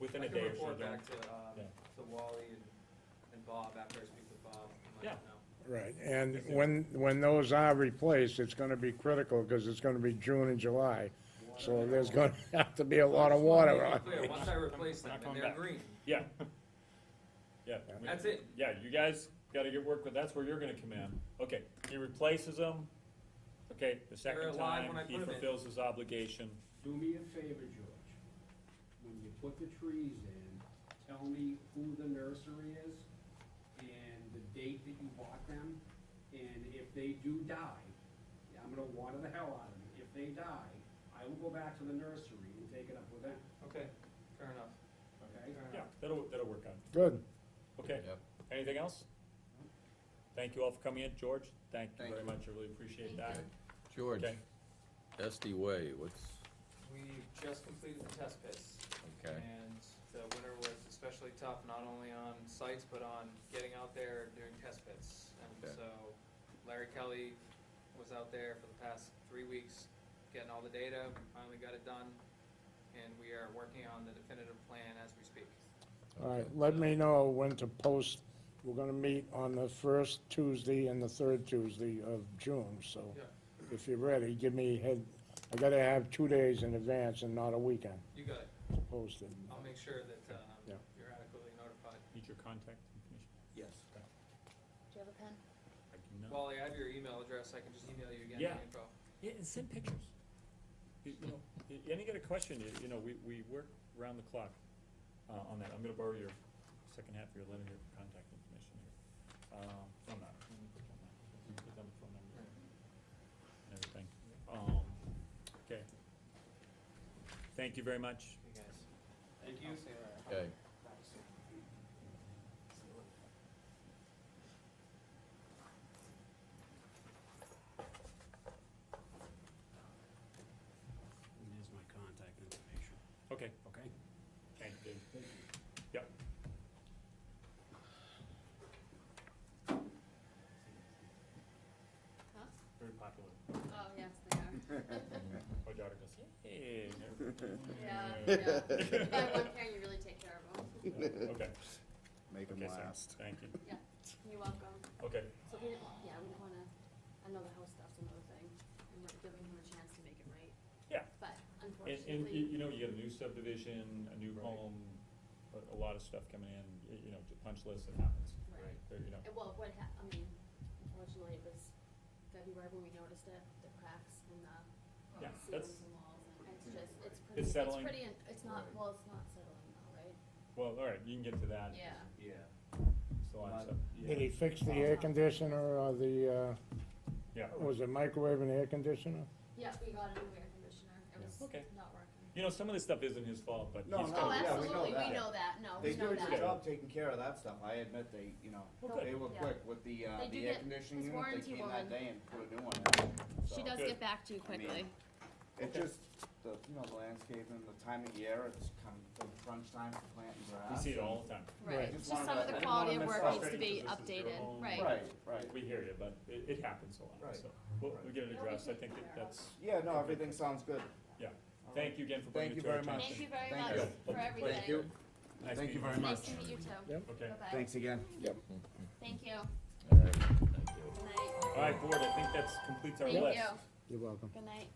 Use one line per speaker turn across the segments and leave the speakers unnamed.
within
I
a
can
day or so.
report
then-
back to, um,
Yeah.
to Wally and, and Bob after I speak with Bob. and let
Yeah.
him know.
Right, and when, when those are replaced, it's gonna be critical, because it's gonna be June and July, so there's gonna have to be a lot of water
Just
on.
wanna make it Clear, once I replace them
not
and
going
they're
back.
green,
Yeah. Yeah. we-
that's it.
Yeah, you guys gotta get work with, that's where you're gonna come in. Okay, he replaces them, okay, the second
alive when I
time, he
put 'em in.
fulfills his obligation.
Do me a favor, George. When you put the trees in, tell me who the nursery is and the date that you bought them. And if they do die, I'm gonna water the hell out of them. If they die, I will go back to the nursery and take it up with them,
Okay, fair enough,
okay?
fair
Yeah,
enough.
that'll, that'll work out.
Good,
Okay,
Yep.
anything else? Thank you all for coming in, George, thank you
Thank
very
you.
much, I really appreciate that.
George,
Okay.
Esty Way, what's,
We've just completed the test pits.
okay,
And the winter was especially tough, not only on sites, but on getting out there doing test pits. And
Okay.
so Larry Kelly was out there for the past three weeks, getting all the data, We finally got it done. And we are working on the definitive plan as we speak.
all right, let me know when to post, we're gonna meet on the first Tuesday and the third Tuesday of June, so
Yeah.
if you're ready, give me a head, I gotta have two days in advance and not a weekend
You got it.
posted.
I'll make sure that, um,
Yeah.
you're adequately notified.
Need your contact information?
Yes.
Do you have a pen?
I do not.
Wally, I have your email address. I can just email you again
Yeah.
the info.
Yeah, and send pictures. You you know, y- any other question, you, you know, we, we work round the clock, uh, on that, I'm gonna borrow your second half of your letter here, contact information here. Um, phone number, let me put down that, let me put down the phone number and everything, um, okay. Thank you very much.
You guys.
Thank
I'll
you.
stay right.
okay.
And there's my contact information,
Okay,
okay?
thank you, Dave.
Thank you.
Yep.
Huh?
Very popular.
Oh, yes, they are.
My daughter goes, hey.
Yeah, yeah. If you buy one pair, you really take care of them.
Okay,
Make them
okay, so,
last.
thank you,
Yeah, you're welcome.
okay.
So we, don't- yeah, we don't wanna, I know the house stuff's another thing. I'm not giving him a chance to make it right.
Yeah.
But
And, and, y-
unfortunately,
you know, you get a new subdivision, a new home, a, a lot of stuff coming in, y- you know, the punch list, it happens,
Right.
right, there, you know,
it- well, what hap, I mean, unfortunately, it was February when we noticed it, the cracks in the
yeah, that's,
ceilings and walls. and It's just, it's pretty,
It's
it's
settling.
pretty, in- it's not, well, it's not settling though, right?
well, all right, you can get to that,
Yeah.
Yeah.
it's a lot of stuff,
Did he fix the air conditioner or the,
yeah.
Oh,
uh, was it microwave and air conditioner?
Yeah, we got a new air conditioner. It was
Okay.
not working.
You know, some of this stuff isn't his fault, but
No,
he's
no,
Oh,
yeah, we
got,
know
absolutely, we
that.
know that, no,
They
we know
do a
that.
good job taking care of that stuff, I admit they, you know,
Okay.
they were
Yeah.
quick with the, uh,
They do
the air
get-
conditioning unit,
his
they
warranty
came that
woman-
day and put a new one in.
She
So,
does
Good.
get back to
I
you
mean,
quickly.
It
Okay.
just, the, you know, the landscaping, the time of year, it's kind of the crunch time for planting
we
grass.
see it all the time,
Right.
Right,
Just
just
wanted
some
to-
of
I
the
didn't
quality
wanna
of
mess
work
up
needs to be
because this is your
updated,
home.
right.
Right, right,
we hear you, but it, it happens a lot,
Right.
so, we'll, we'll get it
It'll be
addressed, I
taken
think that
care of.
that's,
yeah, no, everything sounds good.
yeah,
All right.
thank you again for
Thank
bringing
you
it to our
very much.
attention.
Thank you very
Thank
much
you.
for everything.
Nice
Thank you
meeting
very
Nice
much.
to meet you too.
Yep.
Okay,
Bye-bye.
Thanks again.
Thank you.
All right, thank you.
Good night.
all right, board, I think that's completes our
Thank
list.
you.
You're welcome.
Good night.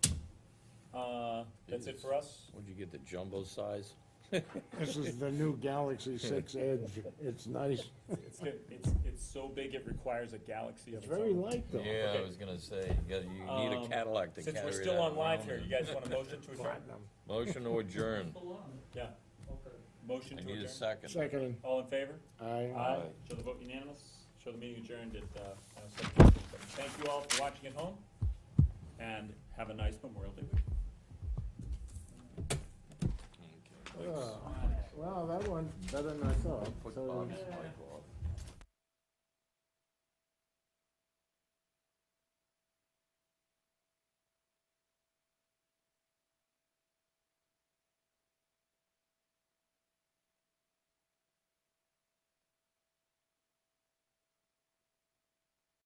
Uh, that's it for us,
When'd you get the jumbo size?
This is the new Galaxy Six Edge, it's nice,
it's good, it's, it's so big it requires a galaxy of
it's
its own.
very light though.
Yeah,
Okay.
I was gonna say, you gotta, you need
Um,
a Cadillac to carry
Since
that
we're still on live
around
here,
and-
you guys want a motion to adjourn?
Platinum.
Motion to adjourn.
Yeah. Motion
I
to
need a
adjourn.
second.
Second,
All in favor?
aye.
Show the vote unanimous. Show the meeting adjourned at, uh, uh, 7:57. Thank you all for watching at home and have a nice Memorial Day weekend.
Okay, thanks.
Oh, Wow, that one's better than I thought.
Put
So-
Bob's mic on.